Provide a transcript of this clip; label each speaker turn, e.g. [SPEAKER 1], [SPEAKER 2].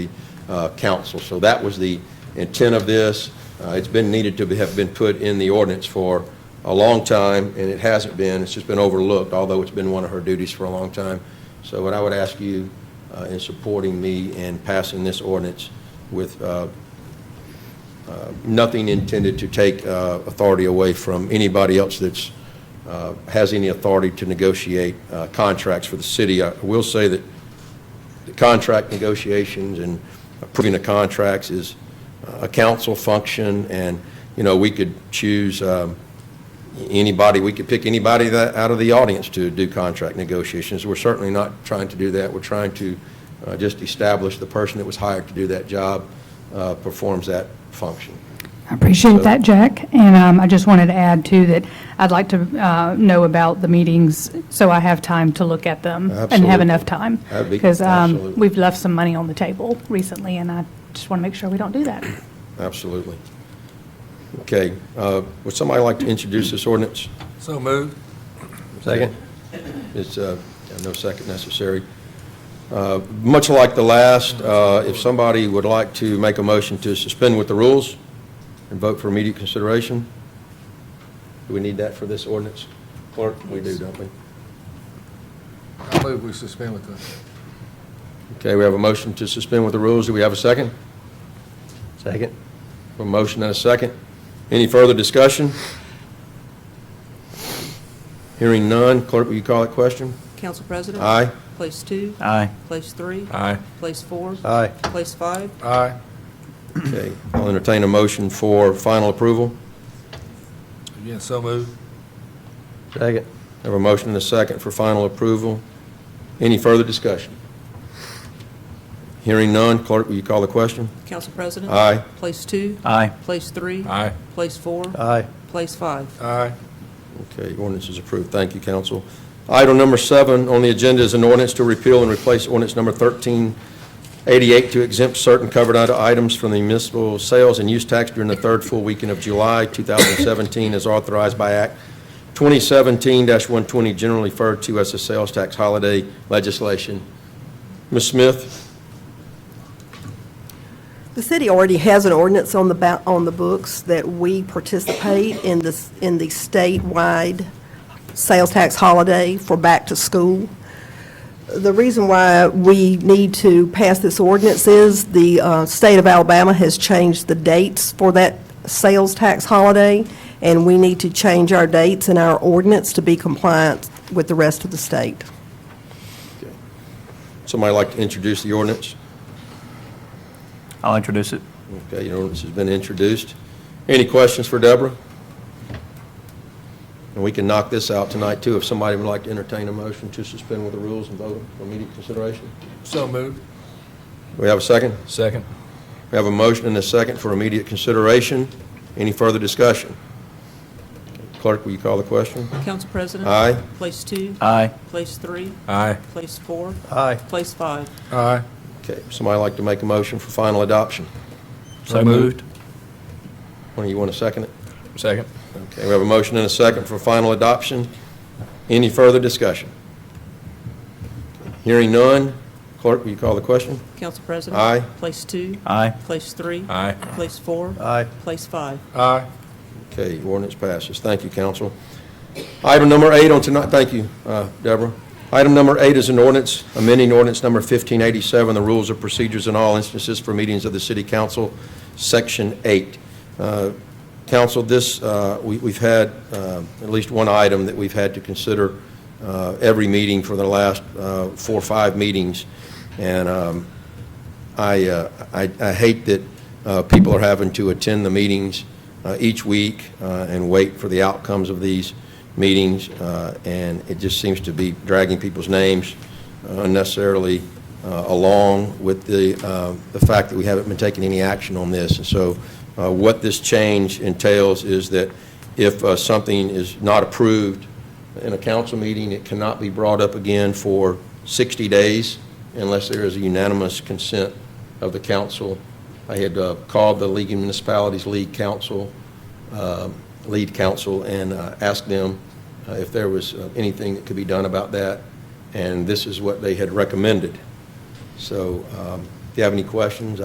[SPEAKER 1] uh, council. So that was the intent of this. Uh, It's been needed to be- have been put in the ordinance for a long time, and it hasn't been. It's just been overlooked, although it's been one of her duties for a long time. So what I would ask you uh, in supporting me and passing this ordinance with uh, nothing intended to take uh, authority away from anybody else that's, uh, has any authority to negotiate uh, contracts for the city. I will say that the contract negotiations and approving the contracts is uh, a council function, and, you know, we could choose um, anybody, we could pick anybody that, out of the audience to do contract negotiations. We're certainly not trying to do that. We're trying to uh, just establish the person that was hired to do that job uh, performs that function.
[SPEAKER 2] I appreciate that, Jack. And um, I just wanted to add, too, that I'd like to uh, know about the meetings so I have time to look at them and have
[SPEAKER 1] Absolutely.
[SPEAKER 2] enough time.
[SPEAKER 1] That'd be-
[SPEAKER 2] Because um,
[SPEAKER 1] absolutely.
[SPEAKER 2] we've left some money on the table recently, and I just want to make sure we don't do that.
[SPEAKER 1] Absolutely. Okay, uh, would somebody like to introduce this ordinance?
[SPEAKER 3] So moved.
[SPEAKER 1] Second. It's, uh, no second necessary. Uh, Much like the last, uh, if somebody would like to make a motion to suspend with the rules and vote for immediate consideration, do we need that for this ordinance? Clerk, we do, don't we?
[SPEAKER 3] I move we suspend with the,
[SPEAKER 1] Okay, we have a motion to suspend with the rules. Do we have a second? Second. A motion and a second. Any further discussion? Hearing none. Clerk, will you call that question?
[SPEAKER 4] Council President?
[SPEAKER 1] Aye.
[SPEAKER 4] Place two?
[SPEAKER 5] Aye.
[SPEAKER 4] Place three?
[SPEAKER 5] Aye.
[SPEAKER 4] Place four?
[SPEAKER 1] Aye.
[SPEAKER 4] Place five?
[SPEAKER 3] aye,
[SPEAKER 1] Okay, I'll entertain a motion for final approval.
[SPEAKER 3] again, so moved.
[SPEAKER 1] Second. Have a motion and a second for final approval. Any further discussion? Hearing none. Clerk, will you call the question?
[SPEAKER 4] Council President?
[SPEAKER 1] Aye.
[SPEAKER 4] Place two?
[SPEAKER 5] Aye.
[SPEAKER 4] Place three?
[SPEAKER 5] Aye.
[SPEAKER 4] Place four?
[SPEAKER 1] Aye.
[SPEAKER 4] Place five?
[SPEAKER 3] Aye,
[SPEAKER 1] Okay, ordinance is approved. Thank you, council. Item number seven on the agenda is an ordinance to repeal and replace ordinance number 1388 to exempt certain covered ita- items from the municipal sales and use tax during the third full weekend of July 2017 as authorized by Act 2017-120, generally referred to as the sales tax holiday legislation. Ms. Smith?
[SPEAKER 6] The city already has an ordinance on the, ba- on the books that we participate in this, in the statewide sales tax holiday for back to school. The reason why we need to pass this ordinance is the uh, state of Alabama has changed the dates for that sales tax holiday, and we need to change our dates in our ordinance to be compliant with the rest of the state.
[SPEAKER 1] Somebody like to introduce the ordinance?
[SPEAKER 5] I'll introduce it.
[SPEAKER 1] Okay, your ordinance has been introduced. Any questions for Deborah? And we can knock this out tonight, too, if somebody would like to entertain a motion to suspend with the rules and vote for immediate consideration.
[SPEAKER 3] so moved.
[SPEAKER 1] We have a second?
[SPEAKER 5] Second.
[SPEAKER 1] We have a motion and a second for immediate consideration. Any further discussion? Clerk, will you call the question?
[SPEAKER 4] Council President?
[SPEAKER 1] Aye.
[SPEAKER 4] Place two?
[SPEAKER 5] Aye.
[SPEAKER 4] Place three?
[SPEAKER 5] Aye.
[SPEAKER 4] Place four?
[SPEAKER 1] Aye.
[SPEAKER 4] Place five?
[SPEAKER 3] Aye,
[SPEAKER 1] Okay, somebody like to make a motion for final adoption?
[SPEAKER 5] So moved.
[SPEAKER 1] One of you want to second it?
[SPEAKER 5] Second.
[SPEAKER 1] Okay, we have a motion and a second for final adoption. Any further discussion? Hearing none. Clerk, will you call the question?
[SPEAKER 4] Council President?
[SPEAKER 1] Aye.
[SPEAKER 4] Place two?
[SPEAKER 5] Aye.
[SPEAKER 4] Place three?
[SPEAKER 5] Aye.
[SPEAKER 4] Place four?
[SPEAKER 1] Aye.
[SPEAKER 4] Place five?
[SPEAKER 3] aye,
[SPEAKER 1] Okay, ordinance passes. Thank you, council. Item number eight on tonight, thank you, uh, Deborah. Item number eight is an ordinance, amending ordinance number 1587, the rules of procedures in all instances for meetings of the city council, section eight. Uh, Council, this, uh, we- we've had uh, at least one item that we've had to consider uh, every meeting for the last uh, four or five meetings, and um, I, uh, I I hate that uh, people are having to attend the meetings uh, each week uh, and wait for the outcomes of these meetings, uh, and it just seems to be dragging people's names unnecessarily uh, along with the, uh, the fact that we haven't been taking any action on this. And so uh, what this change entails is that if uh, something is not approved in a council meeting, it cannot be brought up again for 60 days unless there is a unanimous consent of the council. I had uh, called the League of Municipalities League Council, um, Lead Council, and uh, asked them uh, if there was uh, anything that could be done about that, and this is what they had recommended. So um, if you have any questions,